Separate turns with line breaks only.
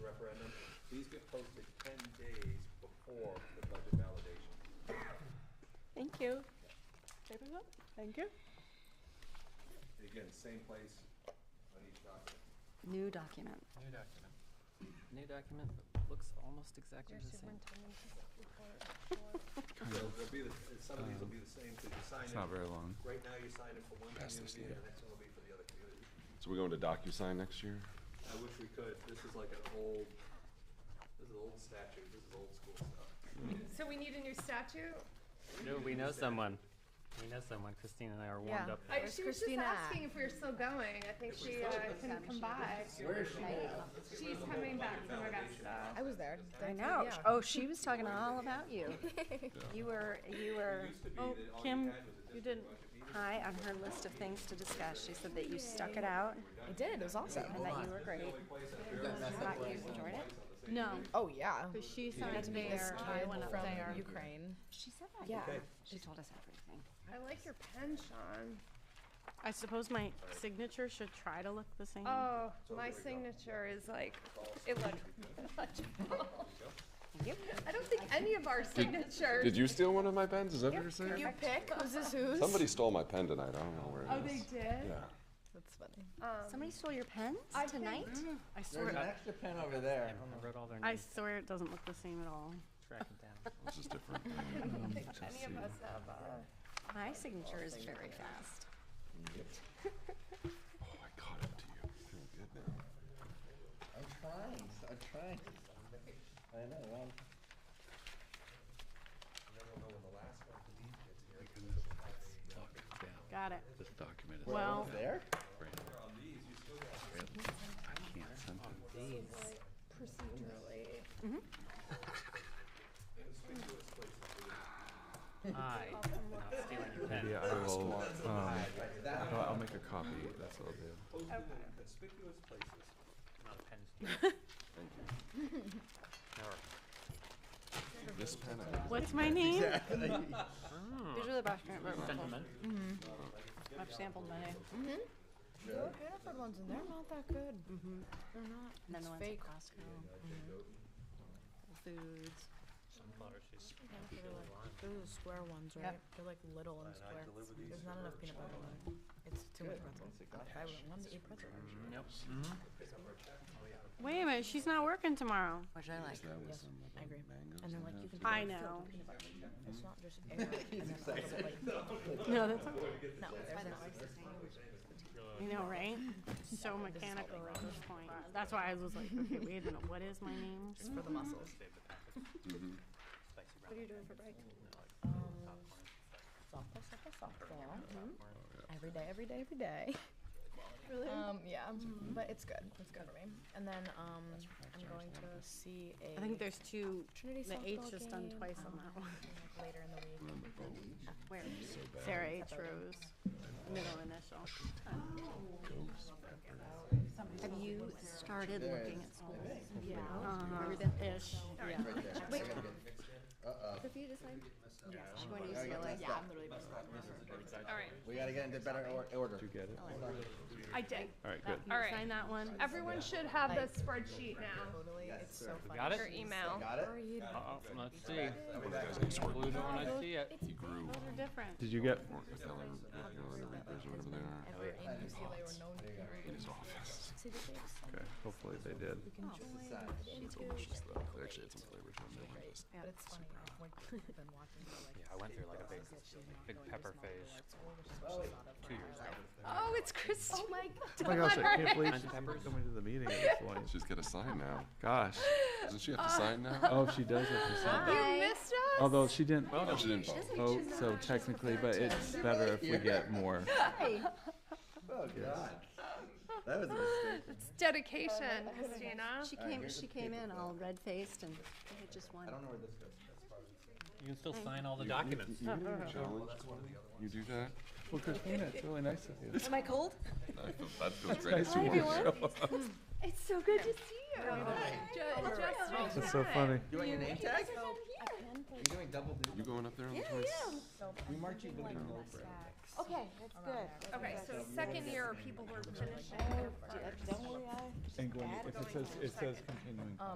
Thank you.
Again, same place on each document.
New document.
New document. New document that looks almost exactly the same.
They'll, they'll be, the- some of these will be the same, because you sign
It's not
it,
very long.
right now you sign it for one community, and the next one will be for the other community.
So we're going to DocuSign next year?
I wish we could, this is like an old, this is old statute, this is old school stuff.
So we need a new statute?
No, we know someone. We know someone. Christine and I are warmed
Yeah.
up.
I,
Where's
she was just
Christina at?
asking if we were still going. I think she uh, couldn't come by. Where is she She's coming back from Augusta.
I was there.
I know. Oh, she was talking all about you. You were, you were
Oh, Kim, you didn't.
high on her list of things to discuss. She said that you stuck it out
I did. It was awesome.
and that you were great. Thought you enjoyed it.
No,
Oh yeah.
because she signed
Meet this
there. I
kid
went up
from
there.
Ukraine.
She said that.
Yeah.
yeah. She told us everything.
I like your pen, Sean.
I suppose my signature should try to look the same.
Oh, my signature is like illegible.
Yep.
I don't think any of our signatures.
Did you steal one of my pens? Is that what you're
You
saying?
pick. Was this who's?
Somebody stole my pen tonight. I don't know where
Oh,
it
they
is.
did?
Yeah.
That's funny.
um,
Somebody stole your pens
I think-
tonight?
I swear, I
extra pen over there. I wrote all their
I
names.
swear it doesn't look the same at all.
Track it down.
It's just different. Oh,
Any of us have, uh,
My signature is very fast.
Oh, I caught up to you. I feel good now.
I'm trying. I'm trying. I know. I'm,
Got it.
This document is
Well,
there?
can't send it.
procedurally.
I am not stealing your pen.
Yeah, I will, um, I'll, I'll make a copy. That's what I'll do.
I'm not a pen stealer.
This pen, I think,
what's my name?
These are the document
Never. Sentiment.
I've sampled my name.
The old Hannaford ones and they're not that good. Mm-hmm. They're not.
And then the ones at
fake.
Costco. Whole Foods.
Mm-hmm. They're like they're the square ones, right? They're like little and square. There's not enough peanut butter. in them. It's too much pretzel. Like, I wouldn't want to eat pretzel.
Nope.
Wait a minute, she's not working tomorrow.
Which I like.
that was
Yes,
some of
I
the
agree.
mangoes.
And they're
they had.
like, you can.
I
fill it with
know.
peanut butter. It's not just air. and then a little bit like-
No, that's
No, there's not.
you know, right? So mechanical at this point. That's why I was like, okay, wait a minute, what is my name?
It's for the muscles.
Mm-hmm.
What are you doing for break?
Softball, softball, softball. Every day, every day, every day. Really? Um, yeah,
Mm-hmm.
but it's good. It's good for me. And then um, I'm going to see a
I think there's two.
Trinity
The H
softball
is done
game,
twice on
um,
that one.
later in the week.
Where?
Sarah H. Rose, middle initial.
Have you started looking at schools?
Uh, ish. Yeah.
Have you decided? She went to UCLA.
Yeah, I'm literally just
All right,
We gotta get into better or- order.
Do you get it?
I did.
All right, good.
All right.
Sign that one.
Everyone should have the spreadsheet now.
totally. it's so E funny.
Got it?
Or email.
Got it?
Uh-oh, let's see. Blue don't wanna see it.
Those are different.
Did you get?
There's whatever they are.
And E we're in UCLA where no one can read. See the shapes?
Okay, hopefully they did.
Oh,
It's delicious though. They actually had some flavors on there. like this.
But it's funny. I've like, been watching her like
Yeah, I went through like a big, big pepper phase two years ago.
Oh, it's Christine. Oh my
Oh my gosh, I can't believe she's even coming to the meeting at this point.
She's got a sign now.
Gosh.
Doesn't she have to sign now?
Oh, she does have to sign.
You missed us?
Although she didn't
No, she didn't. vote.
vote, Oh, so technically, but it's better if we get more.
Oh, God. That was a mistake.
It's dedication, Christina.
She came, she came in all red-faced and they had just one.
I don't know where this goes.
You can still sign all the documents.
Challenge? You do that?
Well, Christina, it's really nice of you.
Am I cold?
I feel- That feels great.
Nice to meet you.
It's so good to see you. Ju- just in
That's so
time.
funny.
You want your name tag?
I can put
You're doing double duty.
You going up there on the
Yeah,
twenty?
yeah.
We march you with a
Okay, that's good.
Okay, so second year are people who are finishing their
Don't worry, I
And Gwen, if it says, it says continuing.